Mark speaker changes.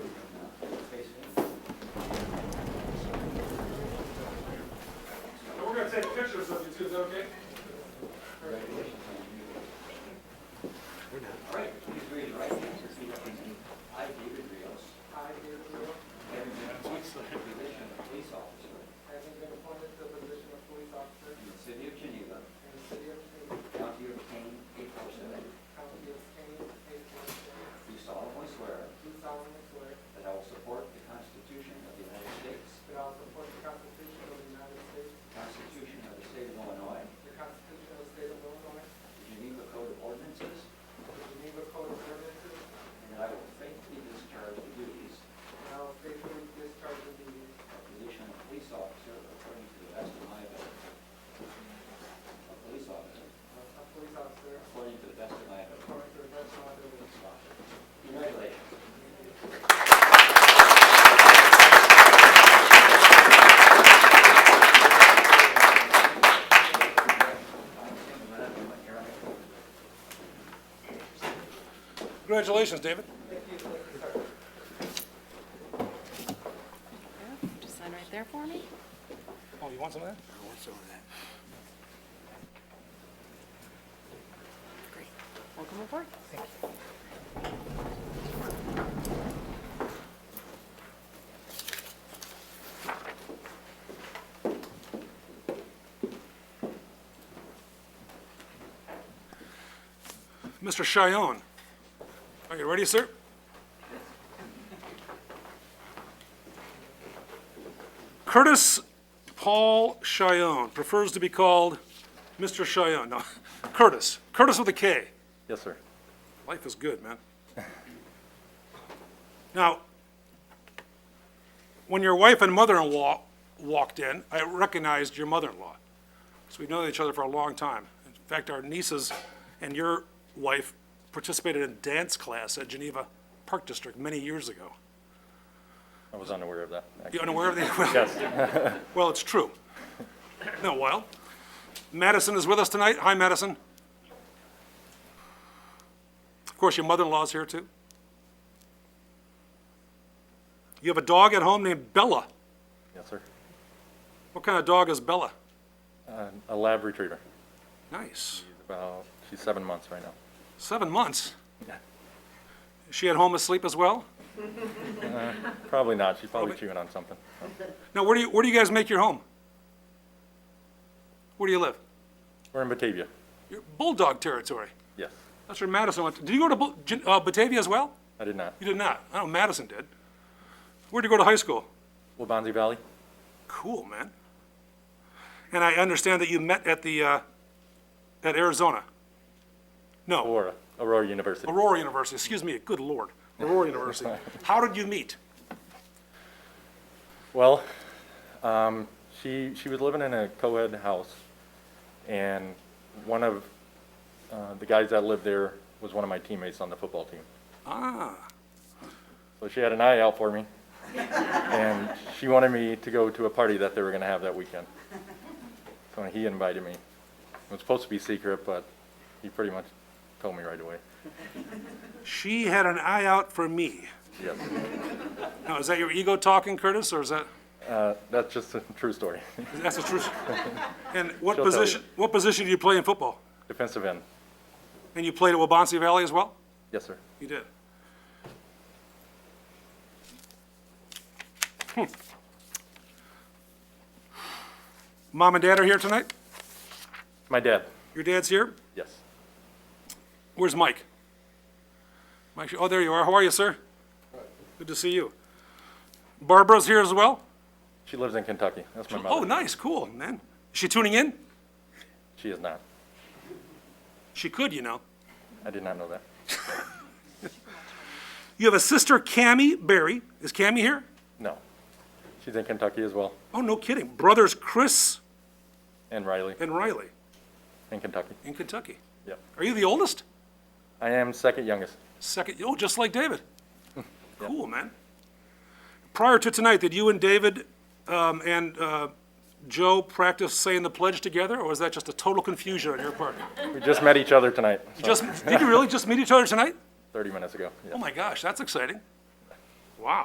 Speaker 1: is okay?
Speaker 2: All right, please raise your right hand and repeat after me. I, David Rios,
Speaker 1: I, David Rowe,
Speaker 2: having been appointed to the position of police officer
Speaker 1: having been appointed to the position of police officer
Speaker 2: in the city of Geneva,
Speaker 1: in the city of Geneva,
Speaker 2: county of Kane, Eight Portland,
Speaker 1: county of Kane, state of Washington,
Speaker 2: do solemnly swear
Speaker 1: do solemnly swear
Speaker 2: that I will support the Constitution of the United States,
Speaker 1: that I will support the Constitution of the United States,
Speaker 2: the Constitution of the state of Illinois,
Speaker 1: the Constitution of the state of Illinois,
Speaker 2: the Geneva Code of Ordinances,
Speaker 1: the Geneva Code of Ordinances,
Speaker 2: and that I will faithfully discharge the duties
Speaker 1: and I will faithfully discharge the duties
Speaker 2: of position of police officer according to the best of my ability. A police officer
Speaker 1: of a police officer
Speaker 2: according to the best of my ability.
Speaker 1: according to the best of my ability.
Speaker 2: Congratulations.
Speaker 3: Congratulations, David.
Speaker 1: Thank you, thank you, sir.
Speaker 4: Yeah, Just sign right there for me.
Speaker 3: Oh, you want some of that?
Speaker 4: Great. Welcome aboard.
Speaker 3: Mr. Cheyenne, are you ready, sir? Curtis Paul Cheyenne prefers to be called Mr. Cheyenne. No, Curtis. Curtis with a K.
Speaker 5: Yes, sir.
Speaker 3: Life is good, man. Now, when your wife and mother-in-law walked in, I recognized your mother-in-law. So we've known each other for a long time. In fact, our nieces and your wife participated in dance class at Geneva Park District many years ago.
Speaker 5: I was unaware of that.
Speaker 3: You
Speaker 5: actually.
Speaker 3: unaware of the, well,
Speaker 5: Yes,
Speaker 3: well, it's true. No, well, Madison is with us tonight. Hi, Madison. Of course, your mother-in-law's here too. You have a dog at home named Bella.
Speaker 5: yes, sir.
Speaker 3: What kind of dog is Bella?
Speaker 5: Um, A lab retriever.
Speaker 3: Nice.
Speaker 5: She's about, she's seven months right now.
Speaker 3: Seven months. Is she at home asleep as well?
Speaker 5: Probably not. She's probably
Speaker 3: Probably-
Speaker 5: chewing on something.
Speaker 3: Now, where do you, where do you guys make your home? Where do you live?
Speaker 5: We're in Batavia.
Speaker 3: You're Bulldog territory.
Speaker 5: Yes.
Speaker 3: That's where Madison went. to- Did you go to Bul- Gen- uh, Batavia as well?
Speaker 5: I did not.
Speaker 3: You did not. I know Madison did. Where'd you go to high school?
Speaker 5: Wabanzi Valley?
Speaker 3: Cool, man. And I understand that you met at the, uh, at Arizona. No,
Speaker 5: Aurora, Aurora University.
Speaker 3: Aurora University, excuse me, good lord, Aurora University. How did you meet?
Speaker 5: Well, um, she, she was living in a co-ed house, and one of, uh, the guys that lived there was one of my teammates on the football team.
Speaker 3: Ah,
Speaker 5: So she had an eye out for me, and she wanted me to go to a party that they were going to have that weekend. So he invited me. It was supposed to be secret, but he pretty much told me right away.
Speaker 3: she had an eye out for me.
Speaker 5: Yes,
Speaker 3: Now, is that your ego talking, Curtis, or is that,
Speaker 5: uh, that's just a true story.
Speaker 3: that's the truth? And what
Speaker 5: She'll tell
Speaker 3: position,
Speaker 5: you.
Speaker 3: what position do you play in football?
Speaker 5: Defensive end.
Speaker 3: And you played at Wabansie Valley as well?
Speaker 5: Yes, sir.
Speaker 3: You did. Hmm. Mom and dad are here tonight?
Speaker 5: My dad.
Speaker 3: Your dad's here?
Speaker 5: Yes.
Speaker 3: Where's Mike? Mike, oh, there you are. How are you, sir? Good to see you. Barbara's here as well?
Speaker 5: She lives in Kentucky. That's my
Speaker 3: Oh,
Speaker 5: mother.
Speaker 3: nice, cool, man. Is she tuning in?
Speaker 5: She is not.
Speaker 3: She could, you know.
Speaker 5: I did not know that.
Speaker 3: You have a sister, Cammy Berry. Is Cammy here?
Speaker 5: No. She's in Kentucky as well,
Speaker 3: Oh, no kidding. Brothers Chris
Speaker 5: and Riley
Speaker 3: and Riley
Speaker 5: in Kentucky.
Speaker 3: in Kentucky.
Speaker 5: Yep.
Speaker 3: Are you the oldest?
Speaker 5: I am second youngest.
Speaker 3: Second, oh, just like David. Cool, man. Prior to tonight, did you and David um, and uh, Joe practice saying the pledge together, or was that just a total confusion on your part?
Speaker 5: We just met each other tonight,
Speaker 3: Just, did you really just meet each other tonight?
Speaker 5: 30 minutes ago.
Speaker 3: Oh
Speaker 5: Yes.
Speaker 3: my gosh, that's exciting.